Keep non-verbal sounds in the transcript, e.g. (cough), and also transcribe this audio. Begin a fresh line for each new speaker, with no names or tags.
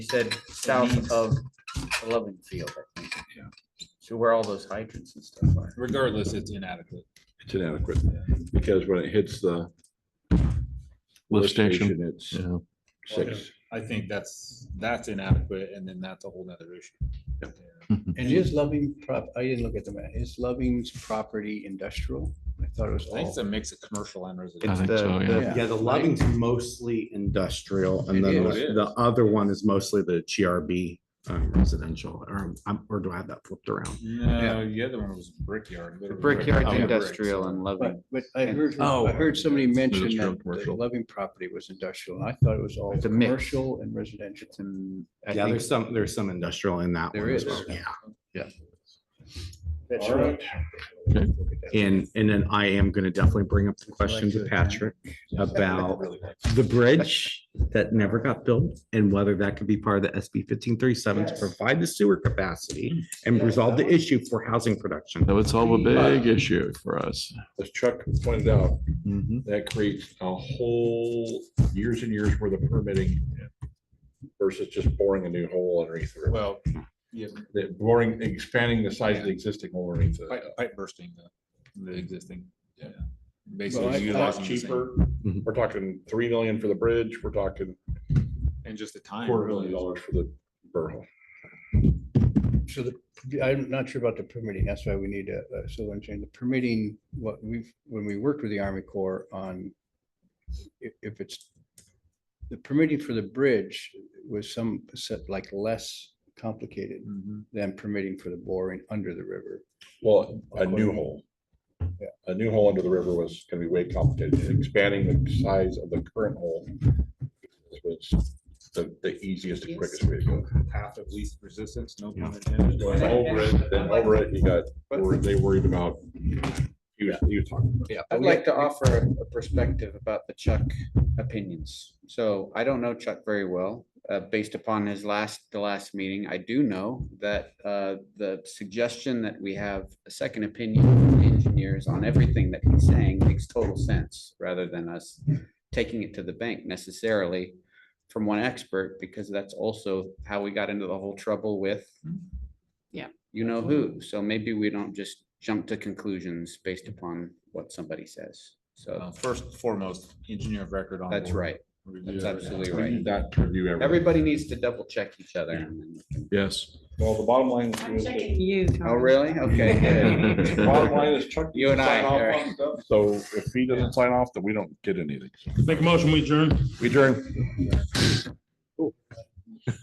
You said south of the Loving Field. I think.
Yeah.
So where all those hydrants and stuff are.
Regardless, it's inadequate.
It's inadequate, because when it hits the.
Lift station.
It's
Yeah,
six.
I think that's, that's inadequate and then that's a whole nother issue.
And is Loving prop, I didn't look at the map, is Loving's property industrial? I thought it was
I think it's
all,
a mix of commercial and
I
residential.
think so, yeah.
Yeah.
Yeah, the Loving's mostly industrial and
It
then
is.
the the other one is mostly the GRB um, residential or, um, or do I have that flipped around?
No, the other one was brickyard. Oh, literally
Brickyard
brickyard.
industrial and
but,
Loving.
but I heard,
Oh.
I heard somebody mention
Industrial,
that the
commercial.
Loving property was industrial, and I thought it was all
It's a mix.
commercial and residential. I
Yeah,
think
there's some, there's some industrial in that
There
one as
is.
well. Yeah.
that's
All
right.
And, and then I am going to definitely bring up the question to Patrick about the bridge that never got built and whether that could be part of the SB fifteen thirty-seven to provide the sewer capacity and resolve the issue for housing production.
That would solve a big issue for us.
As Chuck pointed out,
Mm-hmm.
that creates a whole years and years worth of permitting versus just boring a new hole underneath. the river.
Well, yeah,
That boring, expanding the size of the existing hole underneath. the-
pipe, pipe bursting, the, the existing. yeah.
Well, I-
Basically.
It's a
utilizing
lot
the same-
cheaper.
Mm-hmm.
Mhm.
We're talking three million for the bridge. We're talking
And just the time.
quarter
really.
million dollars for the borough.
So the, I'm not sure about the permitting, that's why we need uh, a, a civil engineer, the permitting, what we've, when we worked with the Army Corps on. If, if it's, the permitting for the bridge was some, set like less complicated
Mhm.
than permitting for the boring under the river.
Well, a new hole.
Yeah.
A new hole under the river was gonna be way complicated, expanding the size of the current hole. Was the, the easiest and quickest way to go.
Path of least resistance, no
Yeah.
pun intended.
Going Over it, then over it, you got, were they worried about? You, you talking.
Yeah.
I'd like to offer a perspective about the Chuck opinions. So I don't know Chuck very well, uh, based upon his last, the last meeting. I do know that, uh, the suggestion that we have a second opinion from engineers on everything that he's saying makes total sense, rather than us taking it to the bank necessarily from one expert, because that's also how we got into the whole trouble with
Yeah.
you know who. So maybe we don't just jump to conclusions based upon what somebody says. So
Uh, First and foremost, engineer of record on.
that's
board.
right.
Review
That's
everything.
absolutely
We
right.
need that to review everything.
Everybody needs to double check each other. and then we can-
(laughs) Yes.
Well, the bottom line.
I'm
is-
checking you.
Oh,
Tony.
really? Okay. good.
Bottom line is Chuck.
You and I,
sign off
all
on stuff, So if he doesn't sign off, then we don't get anything.
Make a motion, we adjourn.
We adjourn.